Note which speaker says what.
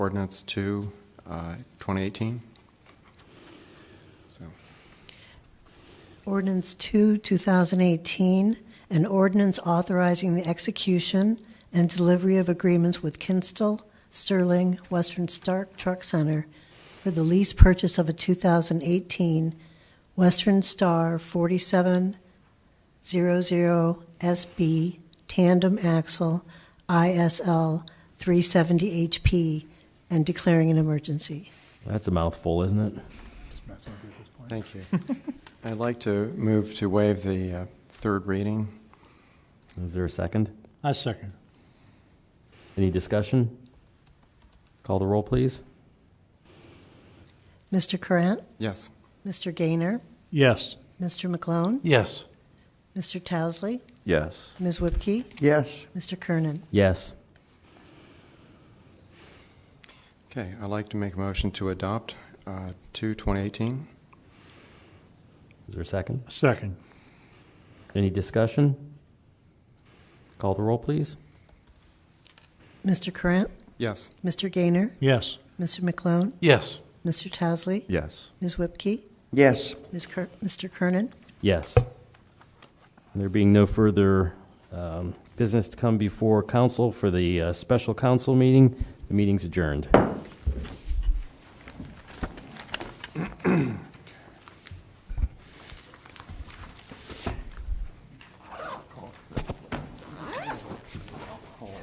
Speaker 1: ordinance to uh, 2018. So,
Speaker 2: Ordinance 2, 2018, an ordinance authorizing the execution and delivery of agreements with Kinstall, Sterling, Western Stark Truck Center for the lease purchase of a 2018 Western Star 4700SB tandem axle ISL 370 HP and declaring an emergency.
Speaker 3: That's a mouthful, isn't it?
Speaker 1: thank you. I'd like to move to waive the uh, third reading.
Speaker 3: Is there a second?
Speaker 4: I second.
Speaker 3: Any discussion? Call the roll, please.
Speaker 2: Mr. Corrant,
Speaker 1: Yes,
Speaker 2: Mr. Gaynor,
Speaker 4: Yes.
Speaker 2: Mr. McLone,
Speaker 4: Yes.
Speaker 2: Mr. Towesley,
Speaker 5: Yes.
Speaker 2: Ms. Whipke,
Speaker 5: Yes.
Speaker 2: Mr. Kernan.
Speaker 3: Yes.
Speaker 1: okay, I'd like to make a motion to adopt uh, to 2018.
Speaker 3: Is there a second?
Speaker 4: Second.
Speaker 3: Any discussion? Call the roll, please.
Speaker 2: Mr. Corrant,
Speaker 1: Yes,
Speaker 2: Mr. Gaynor,
Speaker 4: Yes.
Speaker 2: Mr. McClone,
Speaker 4: Yes.
Speaker 2: Mr. Towesley,
Speaker 5: Yes.
Speaker 2: Ms. Whipke,
Speaker 5: Yes.
Speaker 2: Ms. Ker- Mr. Kernan.
Speaker 3: Yes. There being no further um, business to come before council for the uh, special council meeting, the meeting's adjourned.